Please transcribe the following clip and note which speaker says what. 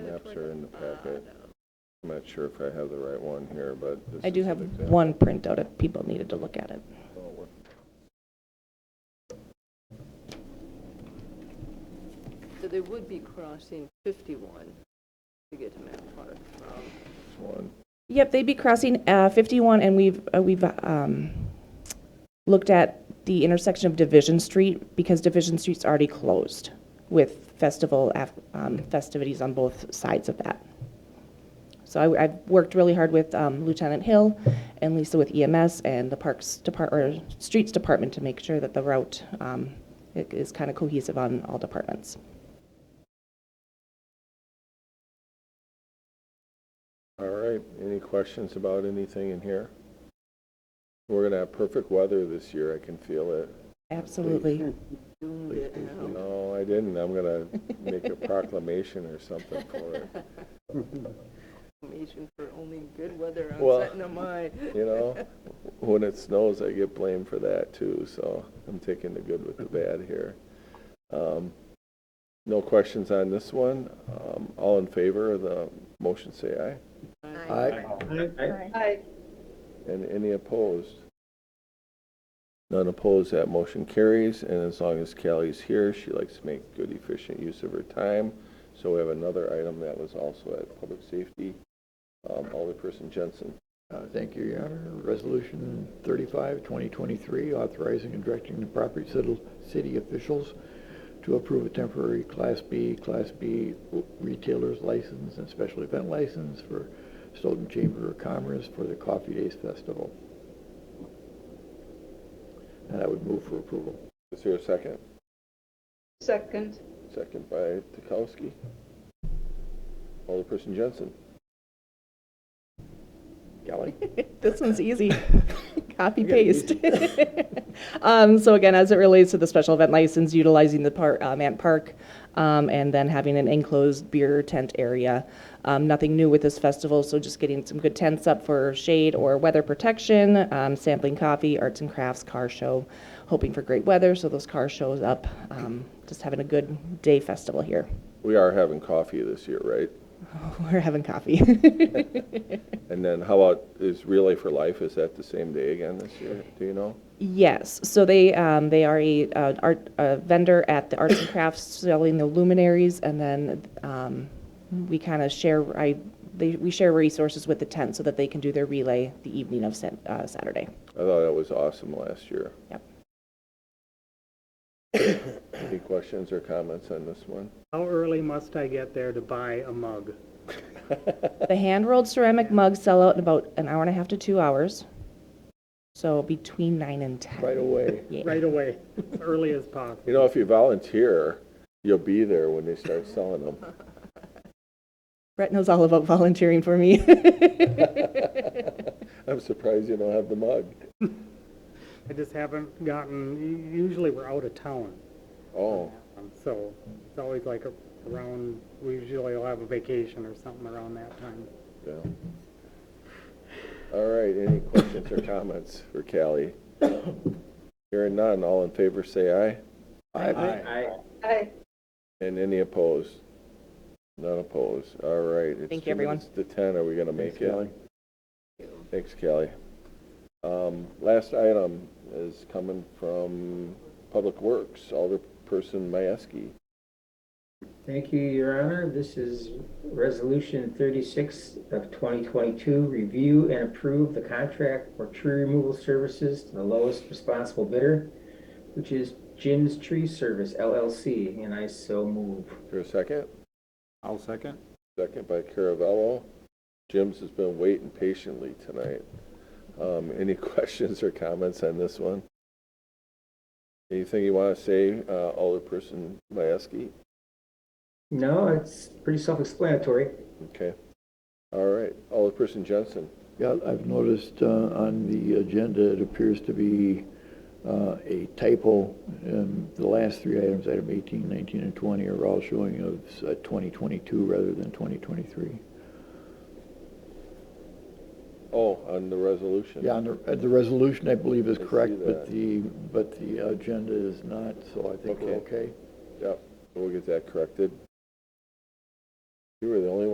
Speaker 1: maps are in the packet. I'm not sure if I have the right one here, but. this
Speaker 2: I do
Speaker 1: is an
Speaker 2: have
Speaker 1: example.
Speaker 2: one printout if people needed to look at it.
Speaker 3: So they would be crossing 51 to get to Mount Park um, from,
Speaker 1: This one.
Speaker 2: Yep, they'd be crossing uh, 51, and we've, uh, we've um, looked at the intersection of Division Street, because Division Street's already closed with festival, af- um, festivities on both sides of that. So I, I've worked really hard with um, Lieutenant Hill and Lisa with EMS and the Parks Depart, or Streets Department to make sure that the route um, i- is kind of cohesive on all departments.
Speaker 1: All right, any questions about anything in here? We're gonna have perfect weather this year, I can feel it.
Speaker 2: Absolutely.
Speaker 3: doomed it now.
Speaker 1: No, I didn't, I'm gonna make a proclamation or something for it,
Speaker 3: Information for only good weather
Speaker 1: Well-
Speaker 3: on Sentinel Mine.
Speaker 1: you know? When it snows, I get blamed for that too, so I'm taking the good with the bad here. Um, No questions on this one, um, all in favor of the motion, say aye. And any opposed? None opposed, that motion carries, and as long as Callie's here, she likes to make good efficient use of her time. So we have another item that was also at Public Safety, um, Alderperson Jensen.
Speaker 4: Uh, Thank you, Your Honor. Resolution 35, 2023, authorizing and directing the property city- city officials to approve a temporary Class B, Class B retailer's license and special event license for Stoughton Chamber of Commerce for the Coffee Days Festival. And I would move for approval.
Speaker 1: Is there a second?
Speaker 5: Second.
Speaker 1: Second by Tukowski. Alderperson Jensen.
Speaker 4: Kelly?
Speaker 2: This one's easy. Copy paste. Um, so again, as it relates to the special event license, utilizing the par um, Ant Park, um, and then having an enclosed beer tent area. Um, nothing new with this festival, so just getting some good tents up for shade or weather protection, um, sampling coffee, arts and crafts, car show, hoping for great weather, so those car shows up. Um, just having a good day festival here.
Speaker 1: We are having coffee this year, right?
Speaker 2: We're having coffee.
Speaker 1: And then how about, is Relay for Life, is that the same day again this year? Do you know?
Speaker 2: Yes, so they, um, they are a, uh, art, a vendor at the Arts and Crafts selling the luminaries, and then, um, we kind of share, I, they, we share resources with the tent so that they can do their relay the evening of Sat- uh, Saturday.
Speaker 1: I thought that was awesome last year.
Speaker 2: Yep.
Speaker 1: Any questions or comments on this one?
Speaker 6: How early must I get there to buy a mug?
Speaker 2: The hand-rolled ceramic mugs sell out in about an hour and a half to two hours, so between nine and ten.
Speaker 4: Right away.
Speaker 2: Yeah,
Speaker 6: Right away, as early as possible.
Speaker 1: You know, if you volunteer, you'll be there when they start selling them.
Speaker 2: Brett knows all about volunteering for me.
Speaker 1: I'm surprised you don't have the mug.
Speaker 6: I just haven't gotten, usually we're out of town,
Speaker 1: Oh,
Speaker 6: um, so it's always like around, we usually will have a vacation or something around that time.
Speaker 1: yeah. All right, any questions or comments for Callie? Hearing none, all in favor say aye.
Speaker 5: Aye.
Speaker 1: And any opposed? None opposed. All right. it's
Speaker 2: Thank you,
Speaker 1: two
Speaker 2: everyone.
Speaker 1: minutes To 10, are we going to make it?
Speaker 4: Kelly.
Speaker 1: Thanks, Kelly. Um, Last item is coming from Public Works, Alderperson Mieski.
Speaker 7: Thank you, Your Honor. This is Resolution 36 of 2022. Review and approve the contract for tree removal services to the lowest responsible bidder, which is Jim's Tree Service LLC, and I so move.
Speaker 1: For a second?
Speaker 8: I'll second.
Speaker 1: Second by Caravello. Jim's has been waiting patiently tonight. Um, Any questions or comments on this one? Anything you want to say, uh, Alderperson Mieski?
Speaker 7: No, it's pretty self-explanatory.
Speaker 1: Okay. All right. Alderperson Johnson.
Speaker 4: Yeah, I've noticed uh, on the agenda, it appears to be uh, a typo. Um, The last three items, item 18, 19, and 20, are all showing of uh, 2022 rather than 2023.
Speaker 1: Oh, on the resolution.
Speaker 4: Yeah, and the, uh, the resolution, I believe, is
Speaker 1: I see
Speaker 4: correct,
Speaker 1: that.
Speaker 4: but the, but the agenda is not, so I think we're
Speaker 1: Okay.
Speaker 4: okay.
Speaker 1: Yep. We'll get that corrected. You were the only one.